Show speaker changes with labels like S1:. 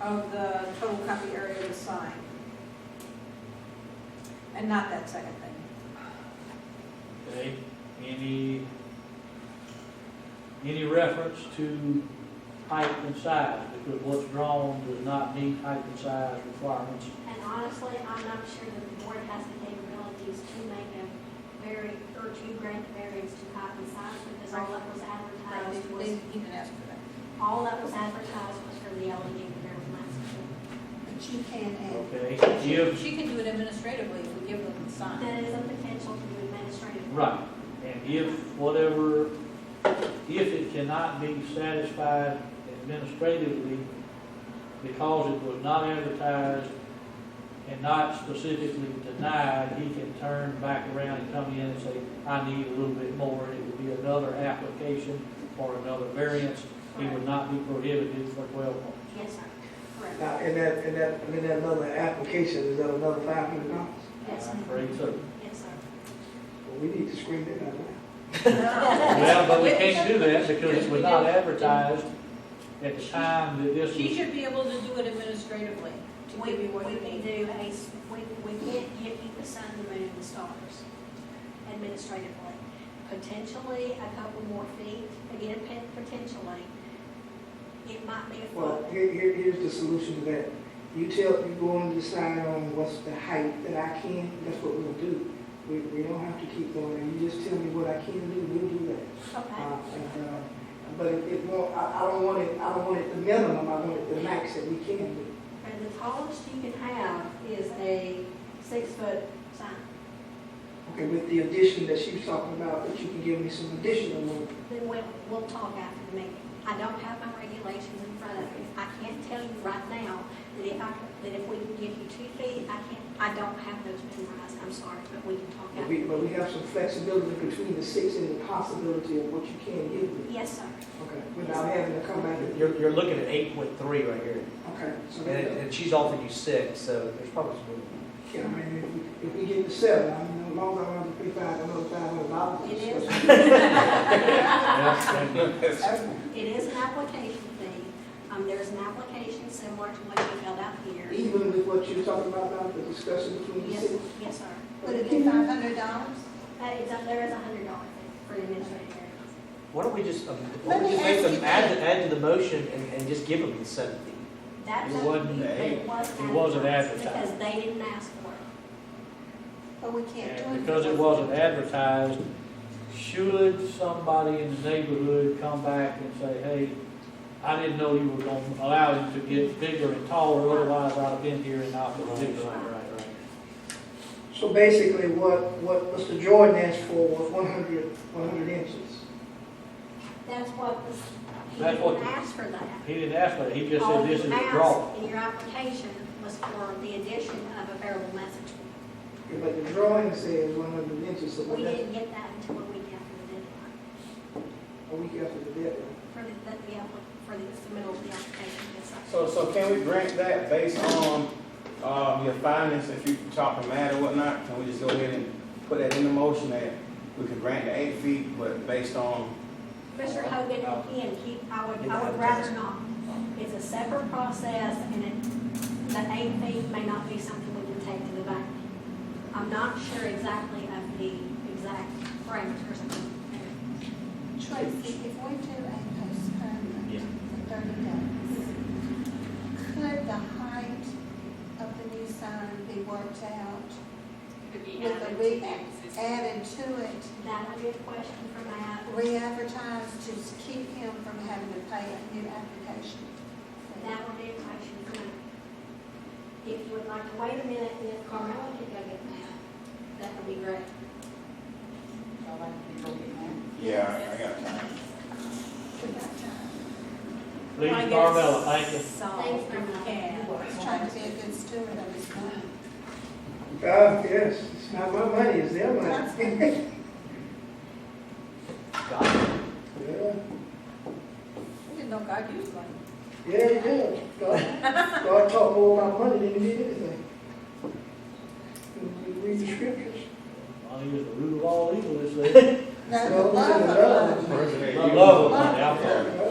S1: of the total copy area of the sign. And not that second thing.
S2: Okay, any, any reference to height and size, because what's drawn does not meet height and size requirements.
S3: And honestly, I'm not sure that the board has the capabilities to make a very, or to grant the variance to copy signs because all that was advertised
S1: Uh, They
S3: was,
S1: didn't even ask for that.
S3: all that was advertised was for the E LED there from last year.
S1: But she can
S2: Okay, if,
S1: She can do it administratively if we give them the sign.
S3: That is a potential to be administrative.
S2: right, and if whatever, if it cannot be satisfied administratively because it was not advertised and not specifically denied, he can turn back around and come in and say, I need a little bit more, and it would be another application or another variance. It would not be prohibited for twelve months.
S3: Yes, sir. Correct.
S4: Now, in that, in that, in that another application, is that another five hundred dollars?
S3: Yes,
S2: I'm
S3: sir.
S2: afraid so.
S3: Yes, sir.
S4: Well, we need to screen it out now.
S2: Well, but we can't do that because it was not advertised at the time that this
S1: She
S2: was.
S1: should be able to do it administratively to
S3: We,
S1: give
S3: we
S1: you what you
S3: can
S1: need.
S3: do a, s- we, we can't give you the sun, the moon, and the stars administratively. Potentially a couple more feet, again, pe- potentially. It might be a
S4: Well,
S3: foot.
S4: here, here, here's the solution to that. You tell, you go and decide on what's the height that I can, that's what we'll do. We, we don't have to keep going, there. you just tell me what I can do, we'll do that.
S3: Okay,
S4: Uh, and, uh, But it, it won't, I, I don't want it, I don't want it the minimum, I want it the max that we can do.
S3: and the tallest you can have is a six-foot sign.
S4: Okay, with the addition that she was talking about, that you can give me some additional room.
S3: Then we'll, we'll talk after the meeting. I don't have my regulations in front of me. I can't tell you right now that if I, that if we can give you two feet, I can't, I don't have those memorized, I'm sorry, but we can talk
S4: But
S3: after.
S4: we, but we have some flexibility between the six and the possibility of what you can give me.
S3: Yes, sir.
S4: Okay, without having to come back and,
S5: You're, you're looking at eight point three right here,
S4: okay, so
S5: and, it-
S4: then,
S5: and she's offering you six, so there's probably some. room.
S4: yeah, I mean, if we- if we get to seven, I mean, as long as I want to pay five, another five hundred dollars.
S3: It is. It is an application fee. Um, there's an application similar to what you filled out here.
S4: Even with what you're talking about, now, the discussion between the
S3: Yes,
S4: six.
S3: yes, sir.
S1: Would it be five hundred dollars?
S3: Uh, it's, up- there is a hundred dollar fee for the administrative variance.
S5: Why don't we just, um, why
S1: Let
S5: don't
S1: me
S5: we just make
S1: ask
S5: them
S1: you
S5: add,
S1: this.
S5: add to the motion and, and just give them the seven feet?
S3: That's.
S2: It wasn't
S3: up to you, but
S2: it wasn't
S3: Because they didn't ask for it.
S1: But we
S2: And because it wasn't advertised, should somebody in the neighborhood come back and say, hey, I didn't know you were gonna allow him to get bigger and taller, otherwise I'd have been here and not been doing it.
S5: right.
S4: So basically, what, what Mr. Jordan asked for was 100 100 inches.
S3: That's what was, he
S2: That's what-
S3: didn't ask for that.
S2: He didn't ask for that, he just
S3: All
S2: said this
S3: Oh, you
S2: is a draw.
S3: asked in your application was for the addition of a variable message.
S4: Yeah, But the drawing says one hundred inches, so
S3: We
S4: that's
S3: didn't get that until a week after the deadline.
S4: a week after the deadline.
S3: For the, that the, appli- for the submittal of the application, yes, sir.
S6: So, so can we grant that based on, um, your findings, if you talking mad or whatnot? Can we just go ahead and put that in the motion that we could grant the eight feet, but based on,
S3: Mr. Hogan, again, keep, I would, I would rather not. It's a separate process, and it, the eight feet may not be something we can take to the bank. I'm not sure exactly of the exact parameters.
S7: Tracy, if we do a postponement for thirty days, could the height of the new sign be worked out with a re, added to it,
S3: That would be a question for Matt.
S7: re-advertised to keep him from having to pay a new application?
S3: That would be a question for Matt. If you would like to wait a minute, and if Carmella could go get Matt, that would be great.
S6: yeah, I got time.
S7: We got time.
S2: Please, Carmella, thank you.
S3: Thanks, Carmella.
S7: He's trying to be a good steward of his money.
S4: Uh, yes, it's not my money, it's their money.
S7: That's-
S5: God,
S4: Yeah.
S1: We didn't know God used one.
S4: Yeah, he did. God, God taught more about money than he did anything. We Read the scriptures.
S2: Money is the root of all evil, it says.
S7: No, the love of money.
S2: I love it, money, I'm sorry.
S4: Yeah,